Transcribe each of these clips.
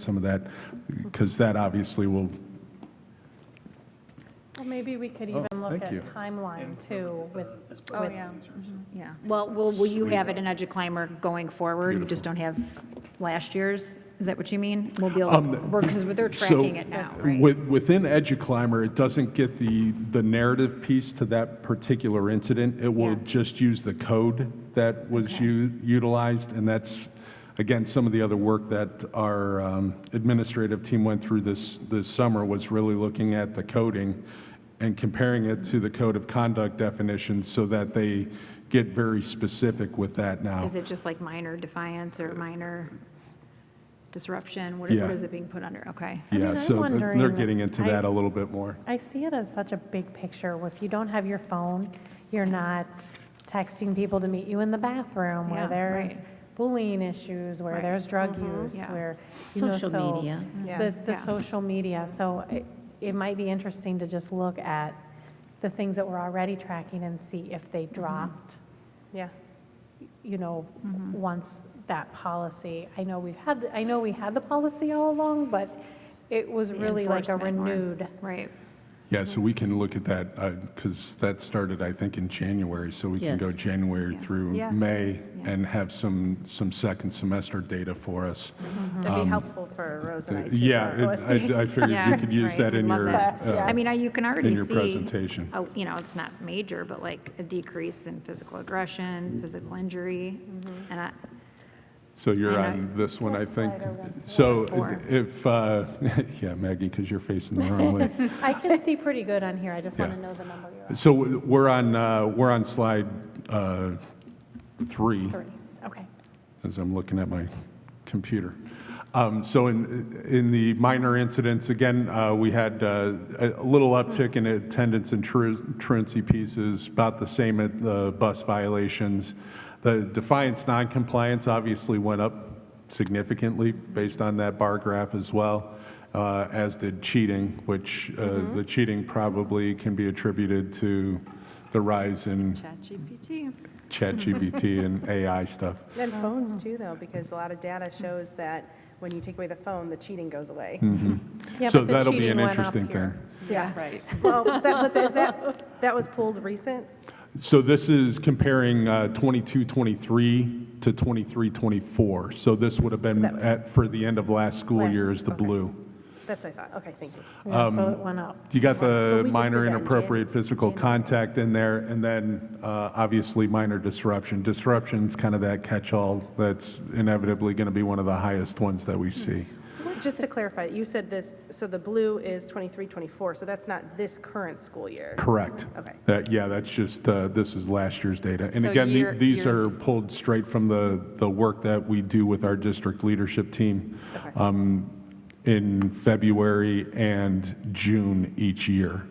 some of that, because that obviously will, Well, maybe we could Oh, even look thank at you. timeline too with, Oh, with, yeah. Yeah, well, will, will you have it in EduClimber going forward? You just don't have last year's? Is that what you mean? We'll be able, Um, because they're so tracking it now, right? with- within EduClimber, it doesn't get the, the narrative piece to that particular incident. It will Yeah. just use the code that was u- utilized, and that's, again, some of the other work that our um, administrative team went through this, this summer was really looking at the coding and comparing it to the code of conduct definitions so that they get very specific with that now. Is it just like minor defiance or minor disruption? What Yeah. what is it being put under? Okay. I mean, Yeah, I'm so th- they're wondering- getting into I- that a little bit more. I see it as such a big picture. where If you don't have your phone, you're not texting people to meet you in the bathroom where Yeah, there's right. bullying issues, where Right. Mm-hmm. there's drug use, yeah. where, you know, Social so- media. The, the Yeah. social media. So it, it might be interesting to just look at the things that we're already tracking and see if they dropped. Yeah. you know, once that policy, I know we've had, I know we had the policy all along, but it was The really like a enforcement or- renewed. Right. Yeah, so we can look at that, because that started, I think, in January, so we can go Yes. January through Yeah. May Yeah. and have some, some second semester data for us. Uh, That'd be helpful for Rose and I too. Yeah, for it- I I OSB. figured you Yeah, could use right, that we'd in love your. that. uh, I mean, I- you can already see. your presentation. Oh, you know, it's not major, but like a decrease in physical Mm-hmm. aggression, physical injury, and I, So you're I know. on this one, I think. So Four. if, uh, yeah, Maggie, because you're facing the wrong way. I can see pretty good on here, I just want Yeah. to know the number you're on. So we're on, uh, we're on slide uh, three. Three, okay. as I'm looking at my computer. Um, So in, in the minor incidents, again, uh, we had uh, a a little uptick in attendance and tru- truancy pieces, about the same at the bus violations. The defiance noncompliance obviously went up significantly based on that bar graph as well, uh, as did cheating, which uh, the cheating probably can be attributed to the rise in ChatGPT. ChatGPT and AI stuff. And phones too, though, because a lot of data shows that when you take away the phone, the cheating goes away. Yeah, So but the that'll be cheating an went up interesting thing. here. Yeah. Right. Well, that was, is that, that was pulled recent? So this is comparing uh, 22, 23 to 23, 24. So this would have been that- at, for the end of last school Last, year is the okay. blue. That's what I thought. Okay, thank you. Yeah, So Um, it went up. You got Well, we the just minor did that in inappropriate Jan- physical January. contact in there, and then uh, obviously minor disruption. Disruption's kind of that catch-all that's inevitably going to be one of the highest ones that Hmm. we see. Just to clarify, you said this, so the blue is 23, 24, so that's not this current school year. Correct. Okay. That, yeah, that's just, uh, this is last year's data. And So again, the- year- these year- are pulled straight from the, the work that we do with our district leadership team Okay. um, in February and June each year.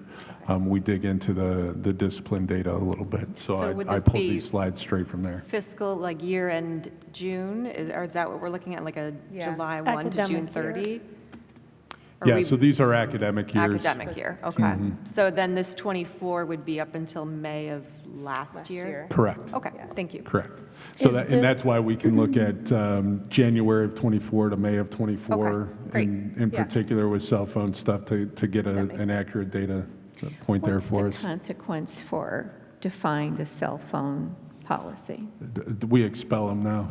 Um, We dig into the, the discipline data a little bit. So So would I- I this pulled be- these slides straight from there. fiscal, like year-end June, is, or is that what we're looking at, like a Yeah. July 1 to June Academic year. 30? Or Yeah, we- so these are academic years. Mm-hmm. Academic year, okay. So then this 24 would be up until May of last Last year? year. Correct. Okay, thank you. Correct. So Is that, and that's this- why we can look at um, January of '24 to May of '24. Okay, great. and In Yeah. particular with cell phone stuff to, to get a- makes an sense. accurate data point there for What's us. the consequence for defying the cell phone policy? D- d- We expel them now.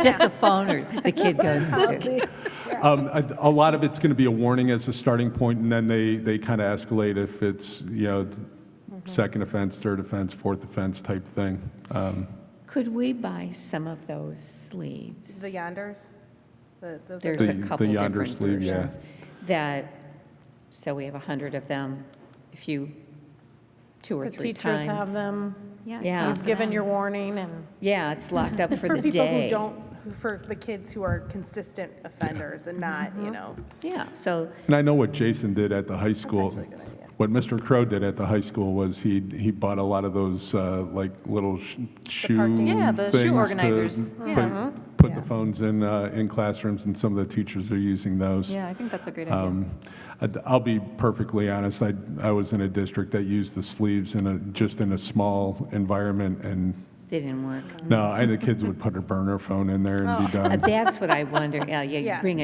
Just the phone or the kid goes into? Um, A a lot of it's going to be a warning as a starting point and then they, they kind of escalate if it's, you know, second offense, third offense, fourth offense type thing. Um, Could we buy some of those sleeves? The yonders? The- those are- There's The- a the couple different yonder sleeve, yeah. versions that, so we have 100 of them, if you, two The or three teachers times. have them, Yeah. you've given your warning and, Yeah, it's locked up for For the people day. who don't, who- for the kids who are consistent offenders and not, you know, Yeah, so And I know what Jason did at the high school. actually a good idea. What Mr. Crow did at the high school was he, he bought a lot of those, uh, like, little sh- shoe parking- Yeah, the shoe things to organizers. Mm-hmm. put- Put the phones in, uh, in classrooms, and some of the teachers are using those. Yeah, I think that's a great idea. Um, I'd- I'll be perfectly honest, I, I was in a district that used the sleeves in a, just in a small environment, and, didn't work. Mm-hmm. no, I, the kids would put a burner phone in there and be done. Oh, Uh, That's what I wonder, yeah, yeah, you Yeah. bring